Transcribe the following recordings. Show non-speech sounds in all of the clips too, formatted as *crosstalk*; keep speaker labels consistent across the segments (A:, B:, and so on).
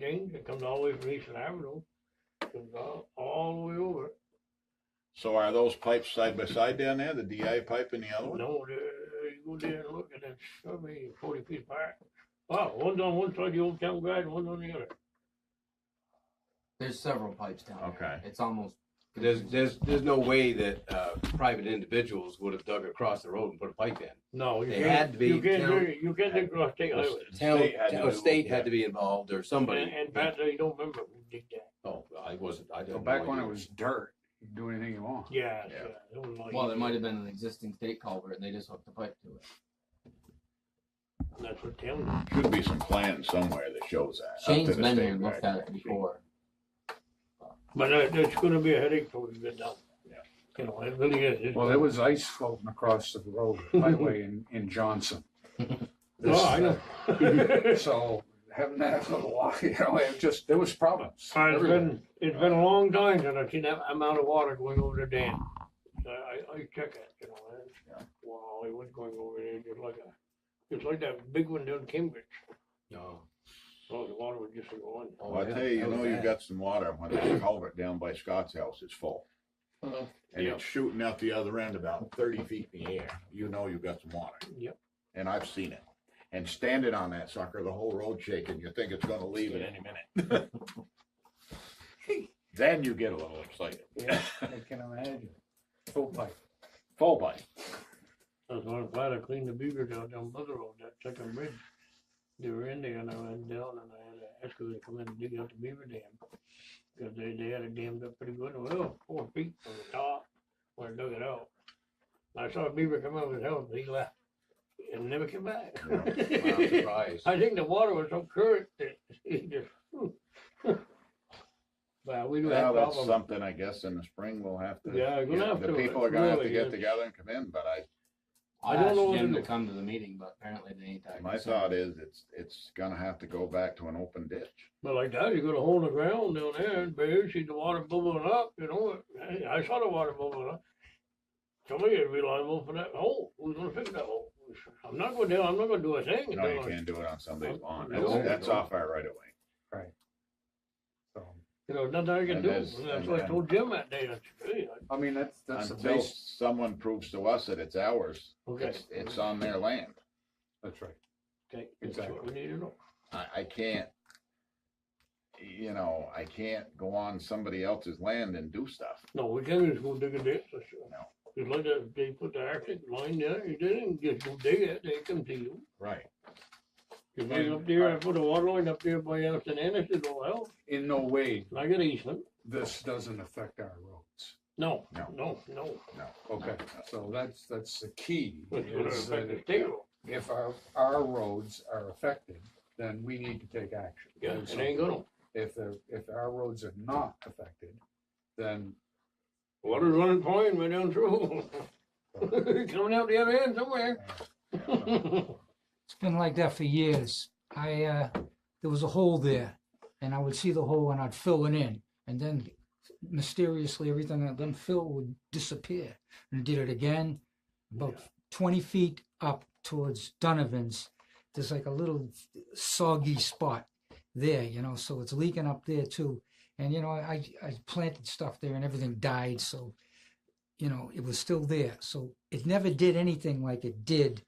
A: James, it comes all the way from Eastern Avenue, comes all, all the way over.
B: So are those pipes side by side down there, the DI pipe and the other one?
A: No, there, you go there and look, and it's probably forty feet apart. Wow, one's on one side of the old town guide, and one's on the other.
C: There's several pipes down there.
B: Okay.
C: It's almost.
D: There's, there's, there's no way that, uh, private individuals would have dug across the road and put a pipe in.
A: No, you
D: They had
A: can't,
D: to be
A: you can't,
D: down-
A: do- you can't do cross state highway.
D: Town,
B: State had to
D: town,
B: do-
D: state had to be involved or
A: And,
D: somebody.
A: and Pat, you don't remember, who did that.
D: Oh, I wasn't, I didn't.
E: So back when it was dirt, you can do anything you want.
A: Yeah,
B: Yeah.
A: yeah, it was like-
C: Well, there might have been an existing state culvert and they just hooked the pipe to it.
A: That's what Tim,
B: Should be some plan somewhere that shows that. up to
C: Shane's
B: the
C: been
B: state
C: here and looked at
B: record.
C: it before.
A: but it, it's gonna be a headache for you to get down.
B: Yeah.
A: You know, it really is. It's-
E: Well, there was ice floating across the road highway in, in *laughs* Johnson.
A: Oh, I know.
D: uh,
A: *laughs* It's
E: *laughs* So having that for a while, *laughs* you know, it just, there was problems. everywhere.
A: been, it's been a long time since I've seen that amount of water going over the dam. I, I, I check it, you know,
B: Yeah.
A: that's, wow, it was going over there just like a, just like that big one down Cambridge.
D: No.
A: Oh, the water was just going.
D: Oh,
B: Well, I
D: yeah,
B: tell you, you
D: that was
B: know, you've
D: bad.
B: got some water when that culvert down by Scott's house is full.
A: Uh,
C: Uh-huh.
B: And
A: Yeah.
B: it's shooting out the other end about thirty feet in the air. You know you've got some water.
A: Yep.
B: And I've seen it. And standing on that sucker, the whole road shaking, you think it's gonna leave at any minute. Then you get a little excited.
E: Yeah, I can imagine. Full pipe.
B: Full bite.
A: That's why I'm glad I cleaned the beaver down down Buzzard Road, that second bridge. They were in there and I went down and I had an excavator come in and dig out the beaver dam. Cause they, they had it dammed up pretty good, well, four feet from the top when I dug it out. I saw a beaver come out of his house, but he left and never came back.
D: *laughs*
A: *laughs*
D: I'm surprised.
A: I think the water was so current that *laughs* he just. But we do
B: Well,
A: have
B: that's
A: problems.
B: something, I guess, in the spring we'll have to.
A: Yeah, we're gonna have
B: The
A: to,
B: people are gonna have to
A: really,
B: get
A: yeah.
B: together and come in, but I,
C: I
A: I don't
C: asked
A: know what
C: Jim
A: to
C: to
A: do.
C: come to the meeting, but apparently they ain't that.
B: my thought is, it's, it's gonna have to go back to an open ditch.
A: But like that, you got a hole in the ground down there, and bear, see the water bubbling up, you know, I- I saw the water bubbling up. Somebody is reliable for that hole, who's gonna fix that hole? I'm not going down, I'm not gonna do a thing.
B: No, you
A: until I-
B: can't do it on somebody's lawn.
A: No,
B: That's,
A: no.
B: that's off our right of way.
E: So,
A: You know, nothing I can
B: And
A: do,
B: that's-
A: and that's
B: and-
A: what I
B: and-
A: told Jim that day, I said, "Hey, I-
E: I mean, that's, that's the
B: Until
E: base.
B: someone proves to us that it's ours,
A: okay.
B: it's, it's on their land.
E: That's right.
A: Okay, that's what we
E: Exactly.
A: need to know.
B: I, I can't, you know, I can't go on somebody else's land and do stuff.
A: No, we can't just go dig a ditch, that's sure.
B: No.
A: Just like that, they put the arctic line there, you didn't just go dig it, they come to you.
B: Right.
A: You made up there, I put a water line up there by Anderson Anderson, well,
E: In no way,
A: and I got an easement.
E: this doesn't affect our roads.
A: No,
B: No.
A: no, no.
E: Okay, so that's, that's the key.
A: It's gonna
E: is that
A: affect the state road.
E: If our, our roads are affected, then we need to take action.
A: Yeah,
E: Do
A: it
E: something.
A: ain't gonna.
E: If the, if our roads are not affected, then
A: Water's running fine right down through. *laughs* Coming out the other end
E: uh,
F: *laughs*
A: somewhere.
F: It's been like that for years. I, uh, there was a hole there and I would see the hole and I'd fill it in and then mysteriously everything I'd done fill would disappear. And I did it again, about twenty feet up towards Donovan's. There's like a little soggy spot there, you know, so it's leaking up there too. And you know, I, I planted stuff there and everything died, so you know, it was still there. So it never did anything like it did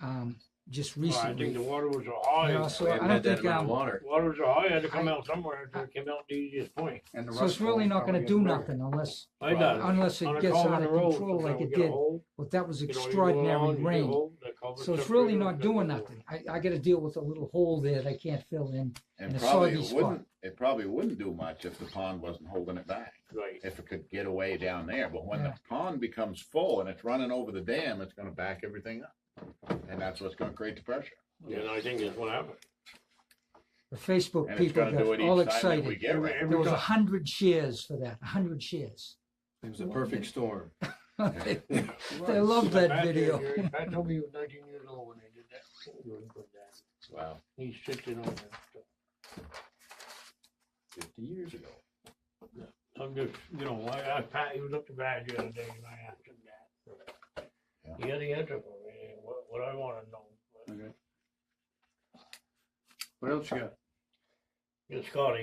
F: um, just
A: Well, I
F: recently.
A: think the water was a high.
F: No, so
D: We
F: I
D: haven't
F: don't
D: had that
F: think,
D: amount of
F: um,
D: water.
A: Water was a high, had to come out somewhere, so it came out the easiest point.
E: and the
F: So
E: rest.
F: it's really not gonna do nothing unless,
A: I
D: Right.
A: done.
F: unless
A: On
F: it
A: a
F: gets
A: culvert
F: out
A: in
F: of
A: the road,
F: control like
A: sometimes
F: it
A: we get a
F: did.
A: hole,
F: Well, that was
A: you know, you go along,
F: extraordinary
A: you get a
F: rain.
A: hole, that culvert's
F: So it's
A: up
F: really
A: there,
F: not
A: that
F: doing
A: culvert.
F: nothing. I, I gotta deal with a little hole there that I can't fill in.
B: And
F: In a
B: probably
F: soggy
B: it
F: spot.
B: wouldn't, it probably wouldn't do much if the pond wasn't holding it back,
A: Right.
B: if it could get away down there. But when the
F: Yeah.
B: pond becomes full and it's running over the dam, it's gonna back everything up. And that's what's gonna create the pressure.
A: And I think that's what happened.
F: The Facebook
B: And it's
F: people
B: gonna do it
F: got all
B: each time that we
F: excited.
B: get
A: Every-
B: rain.
A: every
F: There was a
A: time.
F: hundred shares for that, a hundred shares.
D: It was a perfect storm.
F: They
D: Right.
F: they loved that
A: Pat did,
F: video. *laughs*
A: Jerry. Pat told me he was nineteen years old when they did that. He was good at that.
D: *laughs* Wow,
A: He sits in on that stuff.
D: fifty years ago.
A: I'm just, you know, I, I, Pat, he was up to bad the other day and I asked him that. He had the answer for me, what, what I wanna know. but-
E: Okay. What else you got?
A: It's Scotty.